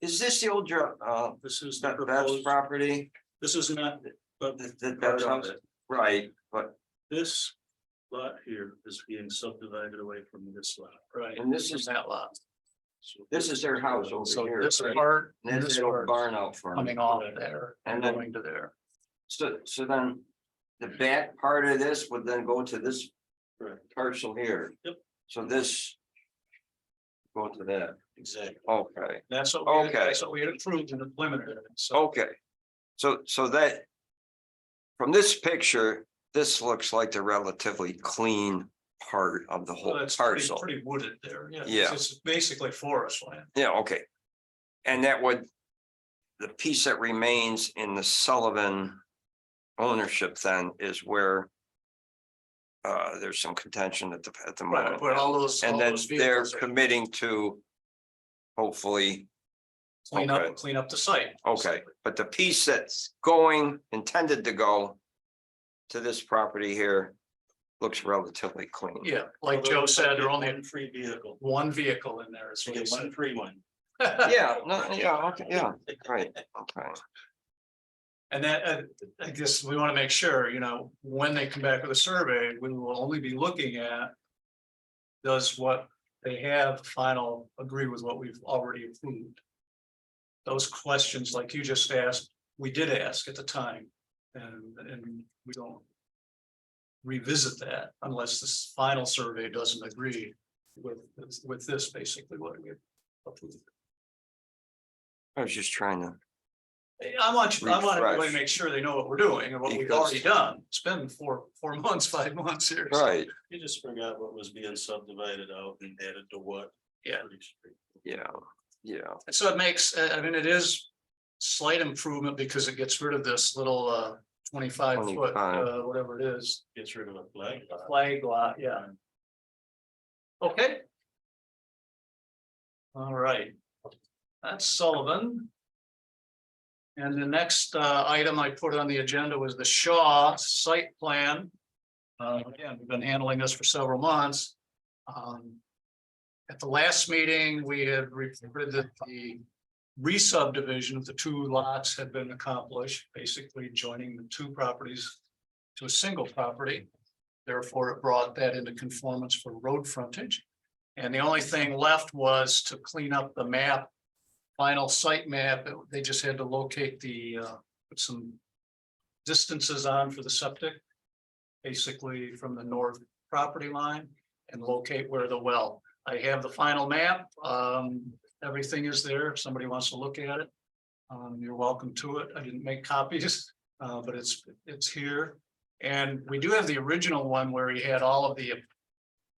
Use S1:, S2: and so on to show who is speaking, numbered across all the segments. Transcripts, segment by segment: S1: Is this the old, dr- uh,
S2: This is the
S1: that Bev's
S2: proposed,
S1: property?
S2: this is not, but
S1: That-
S2: Part
S1: that Bev's
S2: of
S1: house?
S2: it.
S1: Right, but,
S2: this lot here is being subdivided away from this lot. Right.
S1: and this is,
S3: that lot.
S1: this is their house
S3: So
S1: over here.
S3: this
S1: right?
S3: part,
S1: And
S3: this
S1: this old
S3: part
S1: barn out front.
S3: coming off there and
S1: And then-
S3: going to there.
S1: So, so then the back part of this would then go to this
S2: Correct.
S1: parcel here.
S2: Yep.
S1: So this. Go to that,
S2: Exactly.
S1: okay,
S3: That's what, we had-
S1: Okay. Oh,
S3: that's what we had approved in the preliminary. So
S1: okay. So, so that. From this picture, this looks like the relatively clean part of the
S3: Well,
S1: whole
S3: that's pretty,
S1: parcel.
S3: pretty wooded there, yeah.
S1: Yeah.
S3: It's basically forest land.
S1: Yeah, okay. And that would, the piece that remains in the Sullivan ownership then is where uh, there's some contention at the, at the moment.
S3: But all those. all
S1: And then
S3: those
S1: they're
S3: vehicles are-
S1: committing to hopefully,
S3: Clean
S1: okay.
S3: up, clean up the site.
S1: okay, but the piece that's going, intended to go to this property here looks relatively clean.
S3: Yeah, like Joe said, there are only
S2: One Free vehicle,
S3: one vehicle in there. is
S2: so
S3: what he
S2: get one
S3: said.
S2: free one.
S1: Yeah, no, yeah, okay, yeah, right, okay.
S3: And that, uh, I guess we want to make sure, you know, when they come back with a survey, we will only be looking at. Does what they have final agree with what we've already approved? Those questions like you just asked, we did ask at the time and, and we don't. Revisit that unless this final survey doesn't agree with, with this basically what we approved.
S1: I was just trying to,
S3: I want you, I want everybody
S1: Refresh.
S3: to make sure they know what we're doing and what we've
S1: Because-
S3: already done. It's been four, four months, five months here. so-
S1: right,
S2: You just forgot what was being subdivided out and added to what.
S3: Yeah.
S2: Pretty straight.
S1: yeah, yeah.
S3: And so it makes, uh, I, I mean, it is slight improvement because it gets rid of this little, uh, twenty-five foot,
S1: 25.
S3: uh, whatever it is.
S2: Gets rid of a flag. lot.
S3: Flag lot, yeah. Okay. All right. That's Sullivan. And the next uh item I put on the agenda was the Shaw site plan. Uh, again, we've been handling this for several months. Um. At the last meeting, we had reported that the re-subdivision of the two lots had been accomplished, basically joining the two properties to a single property. Therefore, it brought that into conformance for road frontage. And the only thing left was to clean up the map. Final site map, It- they just had to locate the, uh, put some distances on for the septic. Basically from the north property line and locate where the well. I have the final map, um, everything is there, if somebody wants to look at it. Um, you're welcome to it. I didn't make copies, uh, but it's, it's here. And we do have the original one where he had all of the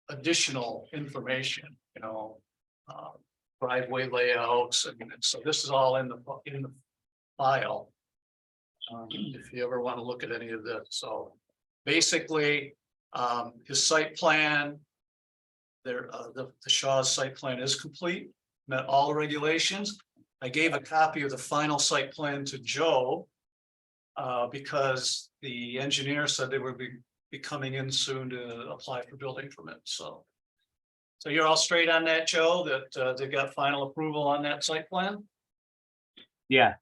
S3: additional information, you know. uh, Driveway layouts, I mean, so this is all in the, in the file. um, If you ever want to look at any of this, so basically, um, his site plan. There, uh, the the Shaw's site plan is complete, met all regulations. I gave a copy of the final site plan to Joe. Uh, because the engineer said they would be, be coming in soon to apply for building permit, so. So you're all straight on that, Joe, that, uh, they've got final approval on that site plan?
S4: Yeah,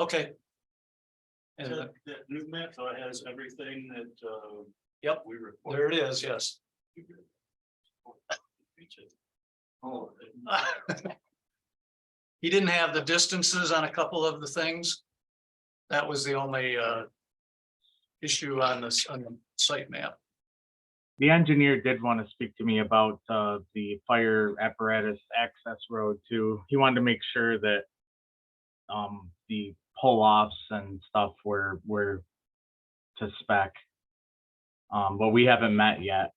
S3: Okay. And uh,
S2: That that new map though has everything that, uh.
S3: Yep.
S2: We report.
S3: there it is, yes.
S2: Oh,
S3: He didn't have the distances on a couple of the things. That was the only, uh. Issue on this, on the site map.
S4: the engineer did want to speak to me about uh, the fire apparatus access road too. He wanted to make sure that um, the pull-offs and stuff were were to spec. Um, but we haven't met yet.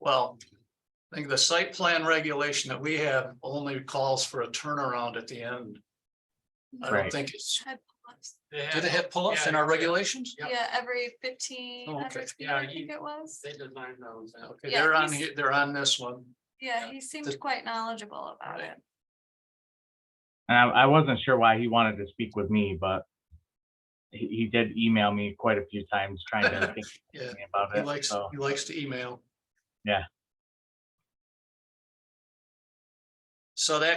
S3: Well, I think the site plan regulation that we have only calls for a turnaround at the end. I don't
S4: Right.
S3: think it's,
S5: had pull-ups.
S3: do they have pull-ups in our regulations?
S5: Yeah, every fifteen,
S3: Oh,
S5: every
S3: okay.
S5: few,
S3: Yeah,
S5: I
S3: he-
S5: think it was.
S3: designed those. Okay,
S5: Yeah,
S3: they're on,
S5: he's-
S3: he- they're on this one.
S5: Yeah,
S3: yeah.
S5: he
S3: The-
S5: seemed quite knowledgeable about
S3: Right.
S5: it.
S4: And I, I wasn't sure why he wanted to speak with me, but he, he did email me quite a few times trying to think
S3: Yeah,
S4: about
S3: he
S4: it.
S3: likes,
S4: so.
S3: he likes to email.
S4: Yeah.
S3: So that